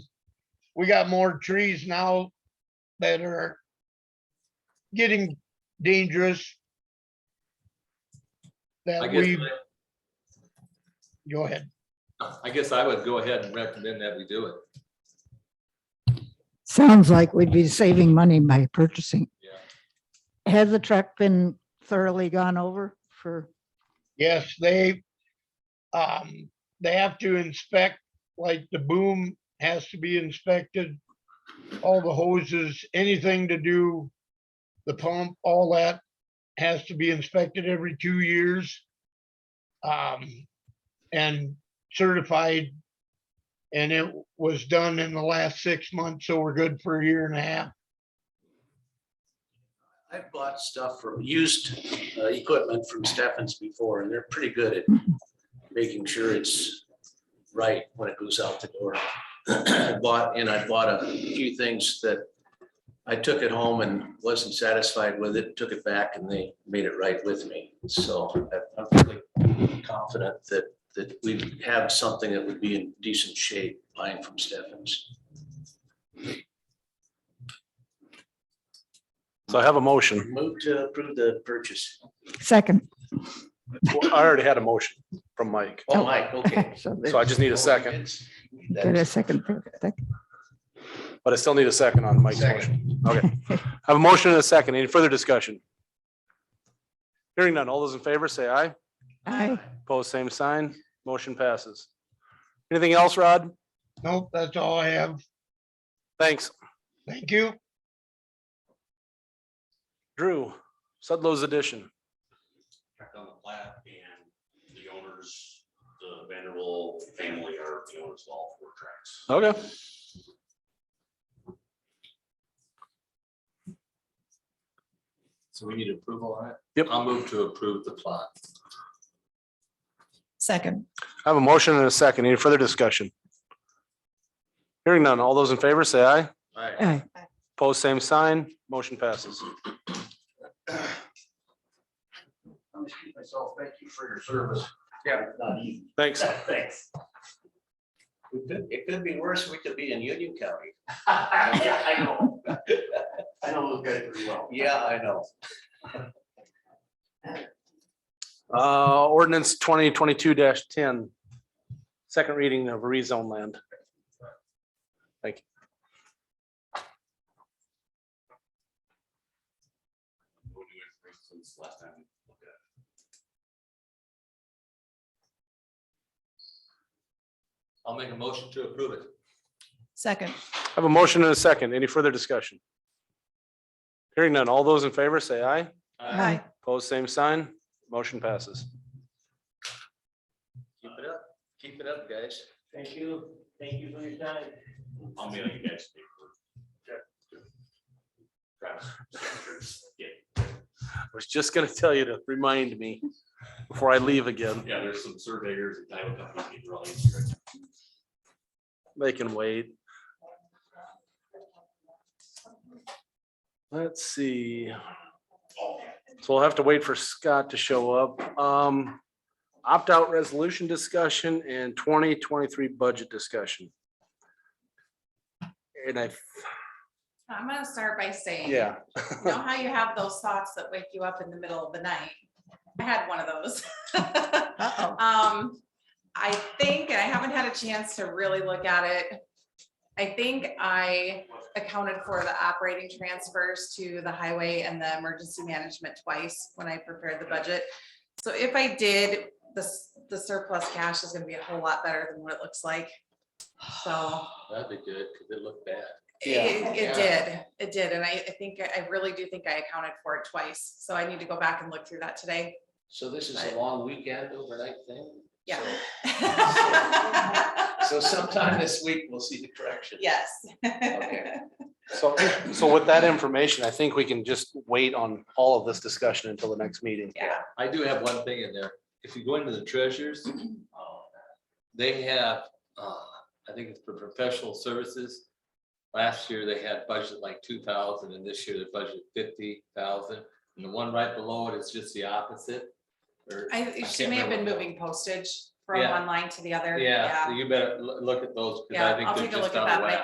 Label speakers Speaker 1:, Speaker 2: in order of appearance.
Speaker 1: we got more trees now that are getting dangerous.
Speaker 2: I
Speaker 1: That
Speaker 2: guess,
Speaker 1: we, go ahead.
Speaker 2: I- I guess I would go ahead and recommend that we do it.
Speaker 3: Sounds like we'd be saving money by purchasing.
Speaker 2: Yeah.
Speaker 3: Has the truck been thoroughly gone over for,
Speaker 1: Yes, they, um, they have to inspect, like the boom has to be inspected. All the hoses, anything to do, the pump, all that has to be inspected every two years. Um, and certified. And it was done in the last six months, so we're good for a year and a half.
Speaker 4: I've bought stuff from used uh, equipment from Stephens before, and they're pretty good at making sure it's right when it goes out the door. I Bought, and I bought a few things that I took it home and wasn't satisfied with it, took it back, and they made it right with me. So I- I'm pretty confident that, that we have something that would be in decent shape buying from Stephens.
Speaker 5: So I have a motion.
Speaker 4: Move to approve the purchase.
Speaker 3: second?
Speaker 5: Well, I already had a motion from Mike,
Speaker 4: Oh, Mike, okay.
Speaker 3: So
Speaker 5: so I
Speaker 3: there's-
Speaker 5: just need a second,
Speaker 3: get a second. for that.
Speaker 5: but I still need a second on Mike's motion. Okay. I have a motion and a second. Any further discussion? Hearing none. All those in favor say aye.
Speaker 3: Aye.
Speaker 5: Opposed, same sign. Motion passes. Anything else, Rod?
Speaker 1: Nope, that's all I have.
Speaker 5: Thanks.
Speaker 1: Thank you.
Speaker 5: Drew, Sudlow's addition.
Speaker 6: checked on the plat and the owners, the Vanderbilt family are the owners of all four tracks.
Speaker 5: Okay.
Speaker 2: So we need approval on it?
Speaker 5: Yep.
Speaker 2: I'll move to approve the plot.
Speaker 7: Second,
Speaker 5: I have a motion and a second. Any further discussion? Hearing none. All those in favor say aye.
Speaker 2: All right.
Speaker 3: Aye.
Speaker 5: Opposed, same sign. Motion passes.
Speaker 4: I'm gonna shoot myself, thank you for your service. Yeah. Not easy.
Speaker 5: Thanks.
Speaker 4: Thanks. It could, it could be worse, we could be in Union County. Yeah, I know. I know those guys pretty well. Yeah, I know.
Speaker 5: Uh, ordinance twenty twenty-two 10 Second reading of rezone land.
Speaker 6: We'll do it for instance, last time we looked at it.
Speaker 2: I'll make a motion to approve it.
Speaker 7: second,
Speaker 5: I have a motion and a second. Any further discussion? Hearing none. All those in favor say aye.
Speaker 7: aye,
Speaker 5: Opposed, same sign. Motion passes.
Speaker 2: Keep it up. Keep it up, guys.
Speaker 4: Thank you, thank you for your time.
Speaker 6: I'll mail you guys. the paperwork. Travis, yeah,
Speaker 5: I was just gonna tell you to remind me before I leave again.
Speaker 6: yeah, there's some surveyors and title companies that draw these right
Speaker 5: They can wait. Let's see. So we'll have to wait for Scott to show up. Um, opt-out resolution discussion and twenty twenty-three budget discussion. And I,
Speaker 8: I'm gonna start by saying.
Speaker 5: yeah,
Speaker 8: You know how you have those thoughts that wake you up in the middle of the night? I had one of those.
Speaker 7: uh-oh.
Speaker 8: Um, I think, and I haven't had a chance to really look at it. I think I accounted for the operating transfers to the highway and the emergency management twice when I prepared the budget. So if I did, the, s- the surplus cash is gonna be a whole lot better than what it looks like. So.
Speaker 2: That'd be good, because it looked bad.
Speaker 8: It, it
Speaker 2: Yeah.
Speaker 8: did, it did, and I, I think, I really do think I accounted for it twice, so I need to go back and look through that today.
Speaker 4: So this is a long weekend overnight thing?
Speaker 8: Yeah.
Speaker 4: So sometime this week, we'll see the correction.
Speaker 8: Yes.
Speaker 4: Okay.
Speaker 5: so, so with that information, I think we can just wait on all of this discussion until the next meeting.
Speaker 8: Yeah,
Speaker 2: I do have one thing in there. If you go into the treasures, uh, they have, uh, I think it's for professional services. Last year, they had budget like two thousand, and this year they budgeted fifty thousand. And the one right below it is just the opposite. or-
Speaker 8: I, she
Speaker 2: can't
Speaker 8: may have been
Speaker 2: remember.
Speaker 8: moving postage from
Speaker 2: Yeah.
Speaker 8: one line to the other.
Speaker 2: Yeah, so you better loo- look at those, because I
Speaker 8: Yeah, I'll
Speaker 2: think
Speaker 8: take
Speaker 2: they're
Speaker 8: a
Speaker 2: just
Speaker 8: look at
Speaker 2: out
Speaker 8: that
Speaker 2: of
Speaker 8: when I
Speaker 2: whack.